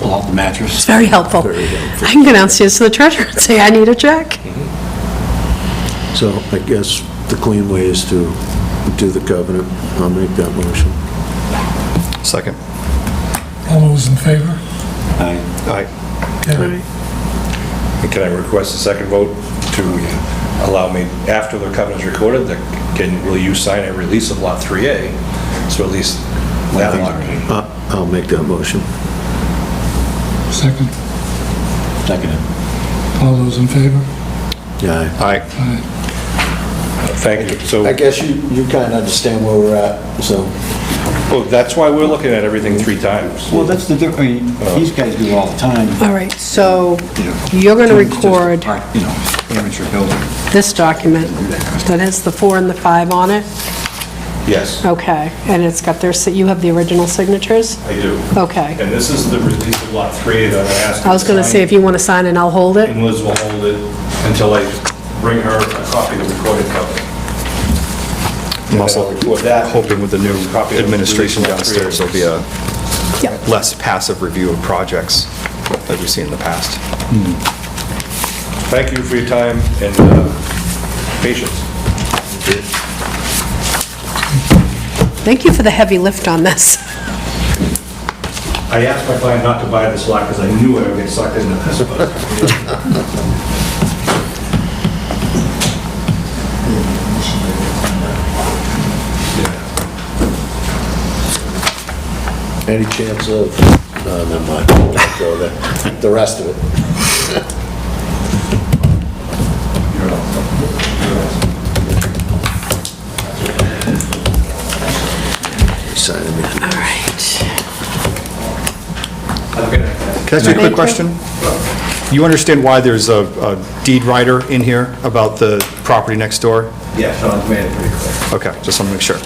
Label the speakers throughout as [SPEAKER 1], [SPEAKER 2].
[SPEAKER 1] helpful.
[SPEAKER 2] Mattress.
[SPEAKER 1] It's very helpful.
[SPEAKER 3] Very helpful.
[SPEAKER 1] I can go downstairs to the treasurer and say, I need a check.
[SPEAKER 3] So I guess the clean way is to do the covenant. I'll make that motion.
[SPEAKER 4] Second.
[SPEAKER 5] All those in favor?
[SPEAKER 2] Aye.
[SPEAKER 4] Aye.
[SPEAKER 5] Okay.
[SPEAKER 6] Can I request a second vote to allow me, after the covenant's recorded, that can, will you sign a release of Lot 3A? So at least that lot.
[SPEAKER 3] I- Uh, I'll make that motion.
[SPEAKER 5] Second.
[SPEAKER 2] Seconded.
[SPEAKER 5] All those in favor?
[SPEAKER 3] Yeah.
[SPEAKER 4] Aye.
[SPEAKER 5] Aye.
[SPEAKER 6] Thank you. So,
[SPEAKER 3] I guess you, you kind of understand where we're at, so.
[SPEAKER 6] well, oh, that's why we're looking at everything three times.
[SPEAKER 2] Well, that's the, diff- I mean, these guys do it all the time.
[SPEAKER 1] All right, so
[SPEAKER 2] you know.
[SPEAKER 1] you're going to
[SPEAKER 2] It's just
[SPEAKER 1] record
[SPEAKER 2] part- You know, amateur building.
[SPEAKER 1] this document that has the four and the five on it?
[SPEAKER 6] Yes,
[SPEAKER 1] Okay, and it's got their, si- you have the original signatures?
[SPEAKER 6] I do.
[SPEAKER 1] Okay.
[SPEAKER 6] And this is the release of Lot 3A that I asked. you
[SPEAKER 1] I was going to say,
[SPEAKER 6] sign,
[SPEAKER 1] if you want to sign it, I'll hold it.
[SPEAKER 6] And Liz will hold it until I bring her a copy of the recorded covenant.
[SPEAKER 4] I'm also
[SPEAKER 6] With that-
[SPEAKER 4] hoping with the new
[SPEAKER 6] Copy of the
[SPEAKER 4] administration
[SPEAKER 6] release of lot three.
[SPEAKER 4] downstairs, there'll be a
[SPEAKER 1] Yeah.
[SPEAKER 4] less passive review of projects that we've seen in the past.
[SPEAKER 6] Thank you for your time and uh, patience.
[SPEAKER 1] Thank you for the heavy lift on this.
[SPEAKER 6] I asked my client not to buy this lot because I knew I would get sucked into this, but...
[SPEAKER 3] Any chance of, no, never mind, go there, the rest of it. Sign me.
[SPEAKER 1] All right.
[SPEAKER 4] Can I ask you a quick
[SPEAKER 1] Thank you.
[SPEAKER 4] question? You understand why there's a- a deed writer in here about the property next door?
[SPEAKER 6] Yeah, Sean's made it pretty clear.
[SPEAKER 4] Okay, just want to make sure.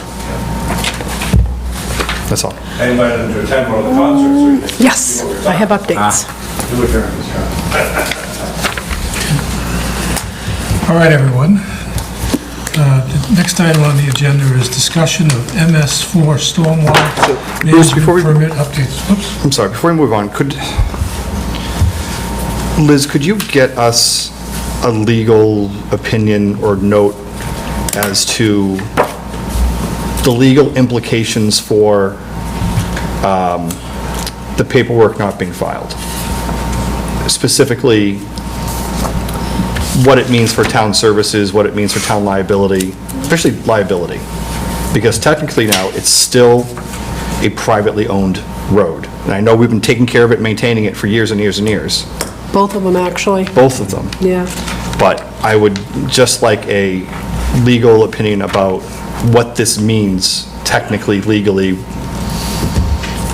[SPEAKER 4] That's all.
[SPEAKER 6] I invited him to attend one of the concerts. so he could see
[SPEAKER 1] Yes,
[SPEAKER 6] what we're
[SPEAKER 1] I have
[SPEAKER 6] talking
[SPEAKER 1] updates.
[SPEAKER 3] Ah.
[SPEAKER 6] about. Do it during this time.
[SPEAKER 5] All right, everyone. Uh, the Next item on the agenda is discussion of MS4 stormwater
[SPEAKER 4] Bruce,
[SPEAKER 5] management
[SPEAKER 4] before we-
[SPEAKER 5] permit updates. Oops,
[SPEAKER 4] I'm sorry, before we move on, could, Liz, could you get us a legal opinion or note as to the legal implications for um, the paperwork not being filed? Specifically, what it means for town services, what it means for town liability, especially liability. Because technically now, it's still a privately owned road. And I know we've been taking care of it, maintaining it for years and years and years,
[SPEAKER 1] Both of them, actually.
[SPEAKER 4] both of them.
[SPEAKER 1] Yeah.
[SPEAKER 4] But I would just like a legal opinion about what this means technically, legally,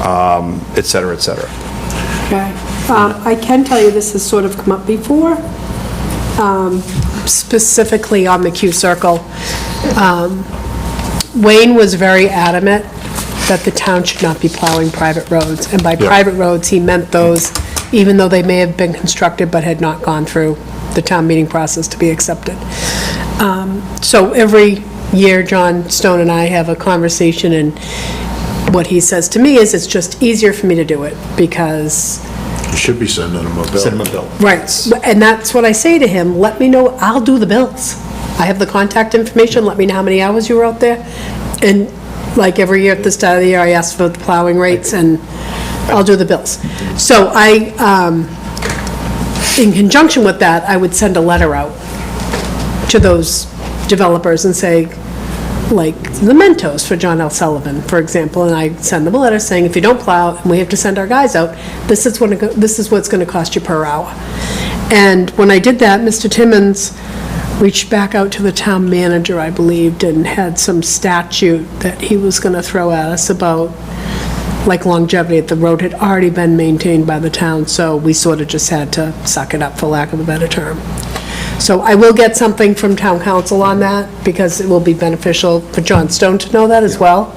[SPEAKER 4] um, et cetera, et cetera.
[SPEAKER 1] Okay. Um, I can tell you this has sort of come up before, um, specifically on the Q Circle. Um, Wayne was very adamant that the town should not be plowing private roads. And by
[SPEAKER 4] Yeah.
[SPEAKER 1] private roads, he meant those, even though they may have been constructed but had not gone through the town meeting process to be accepted. Um, So every year, John Stone and I have a conversation, and what he says to me is, it's just easier for me to do it, because
[SPEAKER 3] You should be sending them a bill.
[SPEAKER 4] Cinnamon bill.
[SPEAKER 1] Right, and that's what I say to him, let me know, I'll do the bills. I have the contact information, let me know how many hours you were out there. And like every year at this time of the year, I ask for the plowing rates and I'll do the bills. So I, um, in conjunction with that, I would send a letter out to those developers and say, like, the Mentos for John L. Sullivan, for example, and I send them a letter saying, if you don't plow, and we have to send our guys out, this is what, it go- this is what's gonna cost you per hour. And when I did that, Mr. Timmons reached back out to the town manager, I believed, and had some statute that he was gonna throw at us about, like longevity, the road had already been maintained by the town, so we sort of just had to suck it up, for lack of a better term. So I will get something from town council on that, because it will be beneficial for John Stone to know that as well,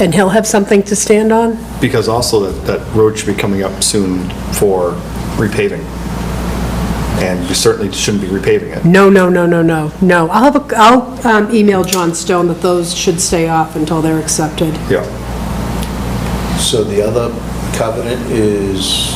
[SPEAKER 1] and he'll have something to stand on.
[SPEAKER 4] Because also that, that road should be coming up soon for repaving. And we certainly shouldn't be repaving it.
[SPEAKER 1] No, no, no, no, no, no. I'll have, a will um, email John Stone that those should stay off until they're accepted.
[SPEAKER 4] Yeah.
[SPEAKER 3] So the other covenant is